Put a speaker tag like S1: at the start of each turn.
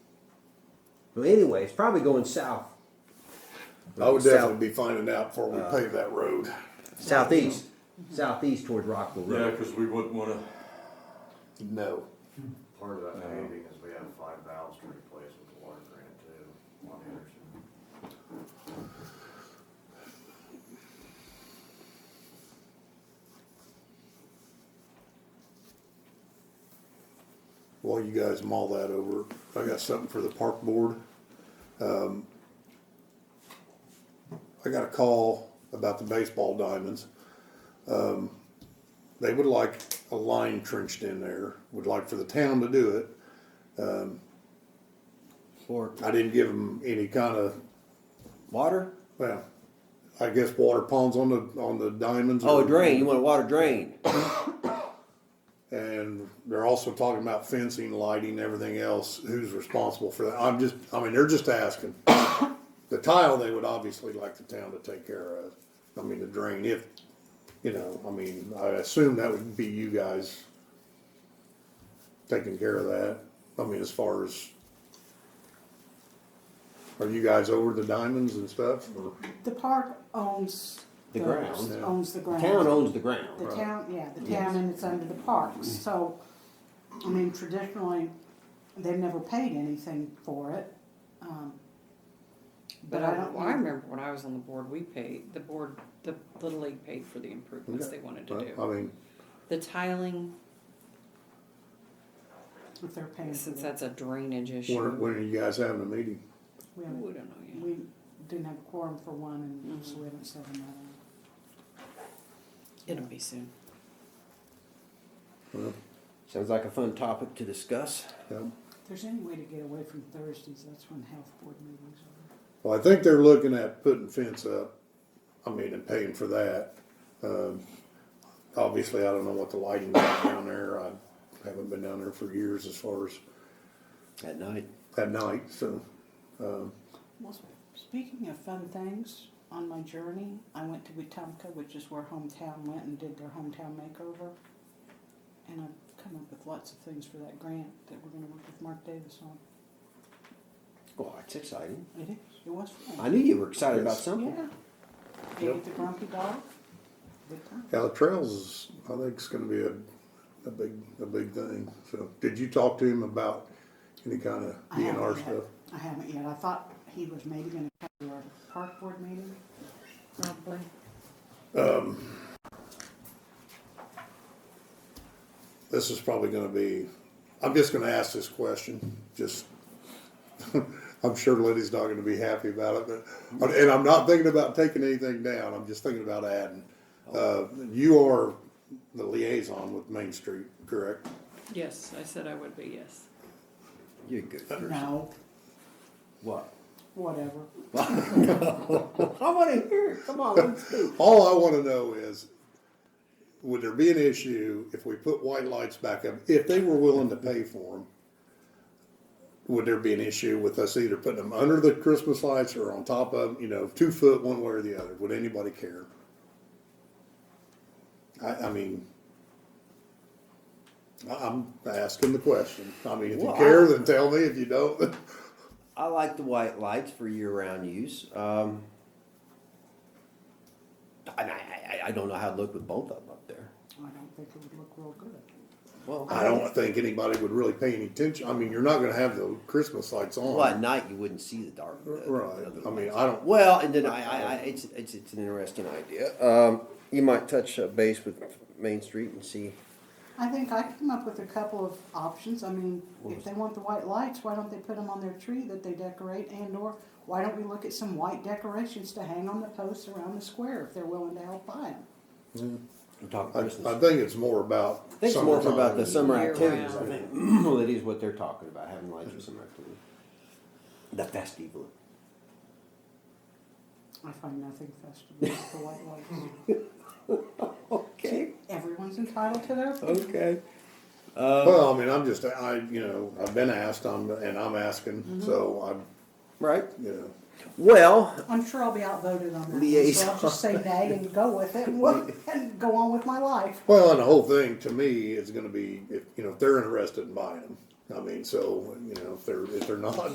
S1: But anyway, it's probably going south,
S2: I would
S1: South. Uh,
S2: definitely be finding out before we pave that road.
S1: southeast, southeast towards Rockville
S3: Yeah,
S1: Road.
S3: because we wouldn't wanna,
S2: No.
S4: Part of that paving is we have five valves to replace with the water grant too, on Anderson.
S2: While you guys mull that over, I got something for the park board. Um, I got a call about the baseball diamonds. Um, they would like a line trenched in there, would like for the town to do it.
S1: Or
S2: I didn't give them any kind of,
S1: water?
S2: well, I guess water ponds on the, on the diamonds.
S1: Oh,
S2: or-
S1: a drain, you want a water drain?
S2: And they're also talking about fencing, lighting, everything else, who's responsible for that, I'm just, I mean, they're just asking. The tile, they would obviously like the town to take care of, I mean, the drain, if, you know, I mean, I assume that would be you guys taking care of that, I mean, as far as, are you guys over the diamonds and stuff, or?
S5: The park owns.
S1: The ground.
S5: Owns the
S1: The
S5: ground.
S1: Town owns the ground. Mm-hmm.
S5: The town, yeah, the town and it's under the parks, so, I mean, traditionally, they've never paid anything for it. um,
S6: But I, well, I
S5: know.
S6: remember when I was on the board, we paid, the board, the Little League paid for the improvements they wanted to
S2: Well,
S6: do.
S2: I mean,
S6: The tiling,
S5: If they're paying for
S2: Mm-hmm.
S6: since
S5: it,
S6: that's a drainage
S2: when,
S6: issue.
S2: when are you guys having a meeting?
S5: we haven't,
S6: We don't know
S5: we didn't have a quorum for one, and so we haven't set another.
S6: yet. It'll be soon.
S2: Well,
S1: Sounds like a fun topic to discuss.
S2: yeah.
S5: If there's any way to get away from Thursdays, that's when health board meetings are.
S2: Well, I think they're looking at putting fence up, I mean, and paying for that. Um, obviously, I don't know what the lighting is down there, I haven't been down there for years as far as
S1: At night.
S2: at night, so.
S5: Well, speaking of fun things, on my journey, I went to Wetumpka, which is where Hometown went and did their hometown makeover. And I've come up with lots of things for that grant that we're gonna work with Mark Davis on.
S1: Oh, it's exciting.
S5: It is. It was
S1: I
S5: fun.
S1: knew you were excited about
S2: Yes.
S1: something.
S5: Yeah. Ate at the Grumpy Dog. Good time.
S2: Yeah, the trails is, I think it's gonna be a, a big, a big thing, so. Did you talk to him about any kind of
S5: I haven't
S2: DNR
S5: yet.
S2: stuff?
S5: I haven't yet. I thought he was maybe gonna come to our park board meeting.
S6: Probably.
S2: This is probably gonna be, I'm just gonna ask this question, just, I'm sure Liddy's not gonna be happy about it, but, and I'm not thinking about taking anything down, I'm just thinking about adding. Uh, you are the liaison with Main Street, correct?
S6: Yes, I said I would be, yes.
S1: You're a good person.
S5: No,
S1: What?
S5: whatever.
S1: I want to hear it. Come on, let's do
S2: All I wanna know is, would there be an issue if we put white lights back up, if they were willing to pay for them? Would there be an issue with us either putting them under the Christmas lights or on top of, 'em, you know, two foot one way or the other? Would anybody care? I, I mean, I- I'm asking the question. I mean, if you
S1: Well, I-
S2: care, then tell me. If you don't,
S1: I like the white lights for year-round use. Um, I, I, I- I don't know how to look with both of them up there.
S5: I don't think it would look real good.
S1: Well,
S2: I don't think anybody would really pay any attention. I mean, you're not gonna have the Christmas lights on.
S1: Well, at night you wouldn't see the dark. the- the
S2: Right.
S1: other
S2: I mean,
S1: lights.
S2: I don't-
S1: Well, and then I, I, I it's, it's, it's an interesting idea. Um, you might touch uh, base with Main Street and see.
S5: I think I came up with a couple of options. I mean, if they want the white lights, why don't they put them on their tree that they decorate and or why don't we look at some white decorations to hang on the posts around the square if they're willing to help buy them?
S1: and Talk
S2: I, I
S1: Christmas. I,
S2: think it's more about.
S1: think it's more for about the
S2: summertime.
S1: summer
S6: Year
S1: activities. I
S6: round.
S1: think well, that is what they're talking about having lights for summer activities. The festive look.
S5: I find nothing festive about the white lights.
S1: Okay.
S5: Everyone's entitled to their opinion.
S1: Okay.
S2: Well, I mean, I'm just, I, you know, I've been asked, I'm, and I'm
S1: Mm-hmm.
S2: asking, so I'm,
S1: Right.
S2: you know.
S1: Well,
S5: I'm sure I'll be outvoted on that. one, So
S1: Liaison.
S5: I'll just say nay and go with it and, work and go on with my life.
S2: Well, and the whole thing to me is gonna be, if, you know, if they're interested in buying them. I mean, so, you know, if they're, if they're not,